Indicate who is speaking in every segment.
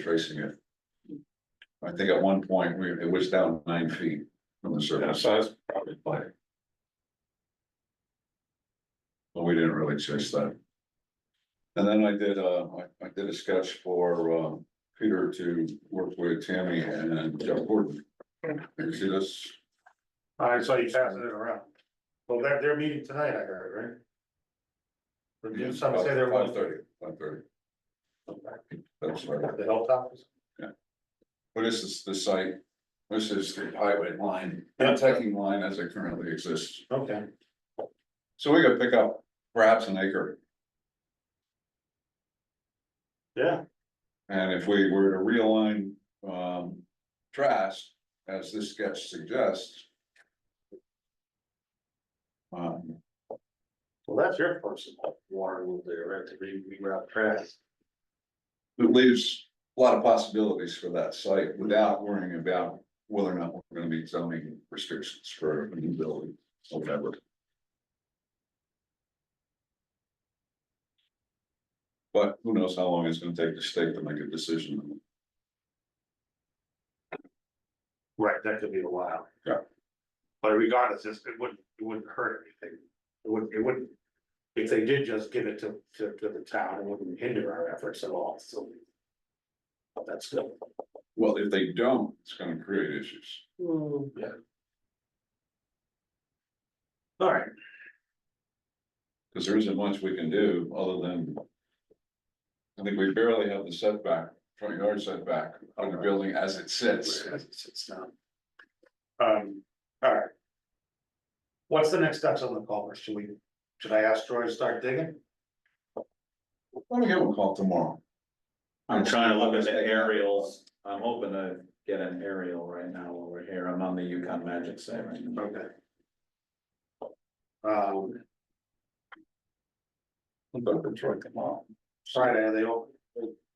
Speaker 1: tracing it. I think at one point, we, it was down nine feet from the
Speaker 2: Yeah,
Speaker 1: surface,
Speaker 2: so that's probably like,
Speaker 1: but we didn't really chase that. And then I did, uh, I, I did a sketch for, uh, Peter to work with Tammy and Jeff Gordon. Did you see this?
Speaker 3: I saw you passing it around. Well, they're, they're meeting tonight, I heard, right? Or did Some say they're
Speaker 1: Mm, Five
Speaker 3: one thirty.
Speaker 1: thirty, five thirty. That's right.
Speaker 3: The hilltop is.
Speaker 1: But this is the site, this is the highway line, the taking line as it currently exists.
Speaker 3: Okay.
Speaker 1: So we could pick up perhaps an acre.
Speaker 3: Yeah,
Speaker 1: And if we were to realign, um, Trask, as this sketch suggests. Um,
Speaker 3: well, that's your personal water move there, right, to re- reroute trash.
Speaker 1: it leaves a lot of possibilities for that site without worrying about whether or not we're gonna meet zoning restrictions for a new building or whatever. But who knows how long it's gonna take the state to make a decision.
Speaker 3: Right, that could be a while.
Speaker 1: Yeah.
Speaker 3: But regardless, it's- it wouldn't, it wouldn't hurt anything. It wouldn't, it wouldn't. If they did just give it to, to, to the town, it wouldn't hinder our efforts at all, so. But that's still.
Speaker 1: Well, if they don't, it's gonna create issues.
Speaker 3: Yeah. All right,
Speaker 1: Cause there isn't much we can do other than. I think we barely have the setback, front yard setback on the building as it sits.
Speaker 3: As it sits down. Um, all right. What's the next steps on the culvert? Should we, should I ask Troy to start digging?
Speaker 1: Let me give him a call tomorrow.
Speaker 4: I'm trying to look at the aerials, I'm hoping to get an aerial right now over here, I'm on the Yukon Magic site right now.
Speaker 3: Okay. Um, Friday, are they all,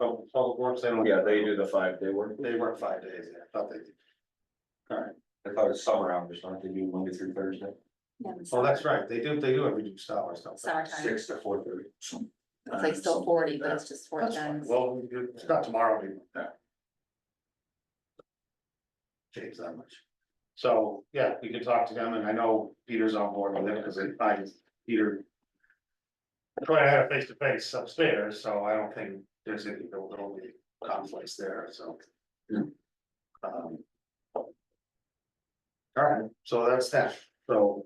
Speaker 3: oh, public works, they don't.
Speaker 4: Yeah, they do the five day work,
Speaker 3: They work five days, yeah, I thought they did.
Speaker 2: I thought it's summer hours, aren't they do Monday through Thursday,
Speaker 5: Yeah,
Speaker 3: Oh, that's right, they do, they do have reduced hours, don't they?
Speaker 5: Summertime,
Speaker 2: six to four thirty?
Speaker 5: it's like still forty, but it's just four
Speaker 3: That's fine.
Speaker 5: times.
Speaker 3: Well, it's not tomorrow anymore. Change that much. So, yeah, we can talk to them and I know Peter's on board with it because I, Peter. Troy and I had a face to face upstairs, so I don't think there's any, there will be conflicts there, so.
Speaker 1: Yeah.
Speaker 3: Um, All right, so that's that, so.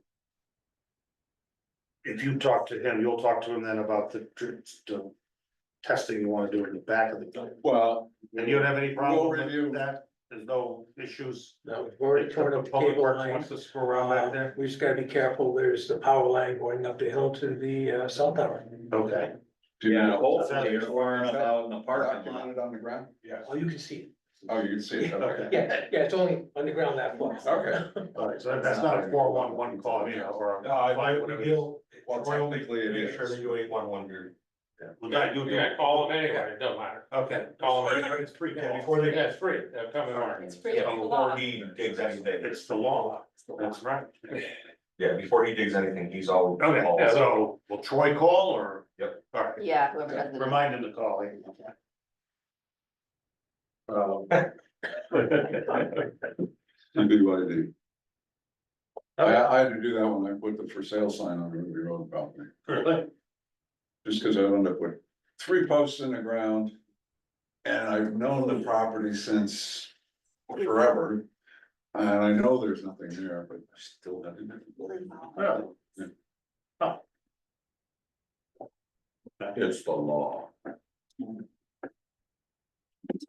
Speaker 3: If you talk to him, you'll talk to him then about the, dr- the testing you wanna do in the back of the building.
Speaker 1: Well,
Speaker 3: And you don't have any
Speaker 1: We'll
Speaker 3: problem
Speaker 1: review.
Speaker 3: with that? There's no issues?
Speaker 6: No, we've already covered up the
Speaker 3: Public
Speaker 6: cable
Speaker 3: Works
Speaker 6: line.
Speaker 3: Wants to screw around back there?
Speaker 6: We just gotta be careful, there's the power line going up the hill to the uh, cell tower.
Speaker 3: Okay.
Speaker 1: do you
Speaker 4: Yeah,
Speaker 1: know?
Speaker 4: hopefully you're learning about in the parking lot.
Speaker 1: Documented on the ground?
Speaker 3: Yeah.
Speaker 6: Oh, you can see it.
Speaker 1: Oh, you can see it, okay.
Speaker 6: Yeah, yeah, it's only underground that far.
Speaker 1: Okay.
Speaker 3: Alright, so that's not a four one one call, you know, or. a five, whatever it is.
Speaker 6: You'll-
Speaker 1: Well, technically it
Speaker 2: Make sure that
Speaker 1: is.
Speaker 2: you ain't one wonder.
Speaker 3: We gotta do.
Speaker 7: Yeah, call them anyway, it doesn't matter.
Speaker 3: Okay.
Speaker 7: Call them anyway.
Speaker 3: It's free.
Speaker 2: Yeah,
Speaker 3: Before they.
Speaker 7: Yeah, it's free, they'll come in on.
Speaker 5: It's pretty long.
Speaker 2: Before he digs anything,
Speaker 3: It's the law.
Speaker 5: It's the law.
Speaker 3: That's right.
Speaker 2: yeah, before he digs anything, he's all.
Speaker 3: Okay,
Speaker 2: all-
Speaker 3: so will Troy call or?
Speaker 2: Yep.
Speaker 3: Alright,
Speaker 5: Yeah, whoever does it.
Speaker 3: remind him to call. eh? Um,
Speaker 1: BYD. I, I had to do that when I put the for sale sign on Ruby Road property,
Speaker 3: really?
Speaker 1: just because I wound up with three posts in the ground. And I've known the property since forever. And I know there's nothing there, but I still haven't.
Speaker 3: Well,
Speaker 1: It's the law.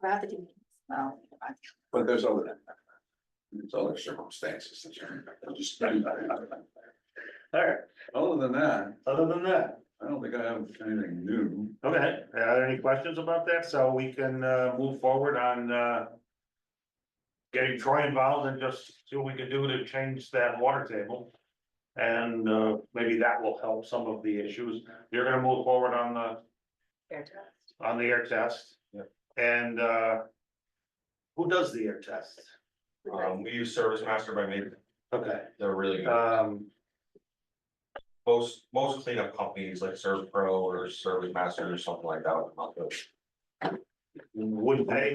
Speaker 5: Throughout the community. Well, I-
Speaker 1: But there's other. There's other circumstances that you're. just-
Speaker 3: Alright,
Speaker 1: Other than that,
Speaker 3: other than that,
Speaker 1: I don't think I have anything new.
Speaker 3: okay, uh, any questions about that? So we can uh move forward on uh. Getting Troy involved and just see what we can do to change that water table. And uh maybe that will help some of the issues. You're gonna move forward on the
Speaker 5: fair to-
Speaker 3: on the air test.
Speaker 2: Yep.
Speaker 3: And uh. Who does the air test?
Speaker 2: Um, we use Service Master by Maybe,
Speaker 3: Okay,
Speaker 2: they're really good,
Speaker 3: um,
Speaker 2: most, most cleanup companies like Serve Pro or Service Master or something like that. would come out with-
Speaker 3: would they